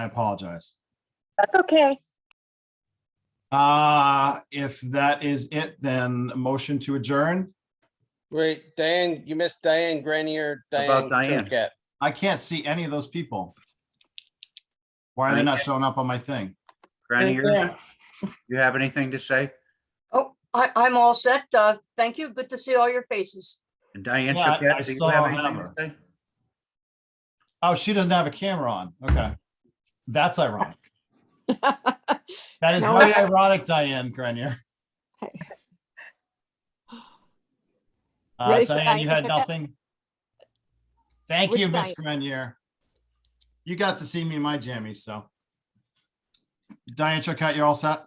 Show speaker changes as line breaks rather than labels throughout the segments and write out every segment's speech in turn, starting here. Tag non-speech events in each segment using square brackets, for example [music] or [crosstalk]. I apologize.
That's okay.
Uh, if that is it, then a motion to adjourn.
Wait, Diane, you missed Diane Grenier, Diane
About Diane.
Turcat.
I can't see any of those people. Why are they not showing up on my thing?
Grenier, you have anything to say?
Oh, I, I'm all set. Uh, thank you. Good to see all your faces.
And Diane
Yeah, I- I
Chiquette, do you
still
have
don't have
anything to
her.
say?
Oh, she doesn't have a camera on. Okay. That's ironic.
[laughs] Uh,
That is
No,
very
I-
ironic, Diane Grenier. Uh,
[laughs] Ready for
Diane, you
Diane
had
Grenier?
nothing? Thank
Which
you, Ms.
Diane?
Grenier. You got to see me in my jammies, so. Diane Choquette, you're all set?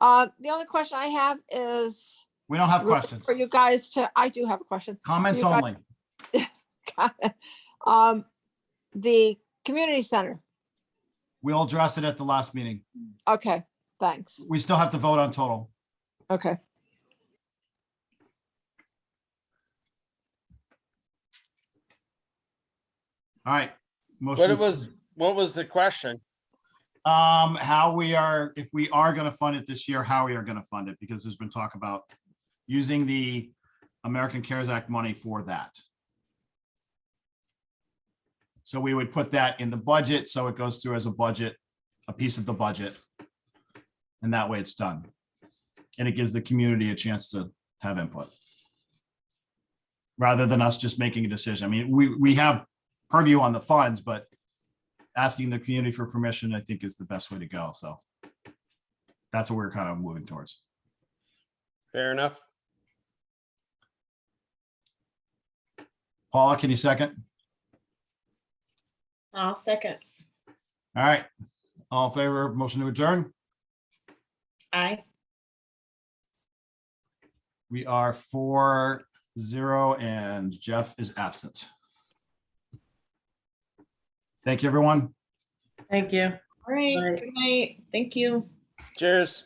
Uh, the only question I have is
We don't have
really
questions.
for you guys to, I do have a question. [laughs]
Comments
you got-
only.
Um, the community center.
We'll address it at the last meeting.
Okay, thanks.
We still have to vote on total.
Okay.
All right.
What
Motion. to-
it was, what was the question?
Um, how we are, if we are gonna fund it this year, how we are gonna fund it, because there's been talk about using the American CARES Act money for that. So we would put that in the budget, so it goes through as a budget, a piece of the budget. And that way it's done. And it gives the community a chance to have input. Rather than us just making a decision. I mean, we, we have purview on the funds, but asking the community for permission, I think is the best way to go. So that's what we're kind of moving towards.
Fair enough.
Paula, can you second?
I'll second.
All right. All in favor, of motion to adjourn.
Aye.
We are four zero and Jeff is absent. Thank you, everyone.
Thank you. All right.
Right.
Good night. Thank you.
Cheers.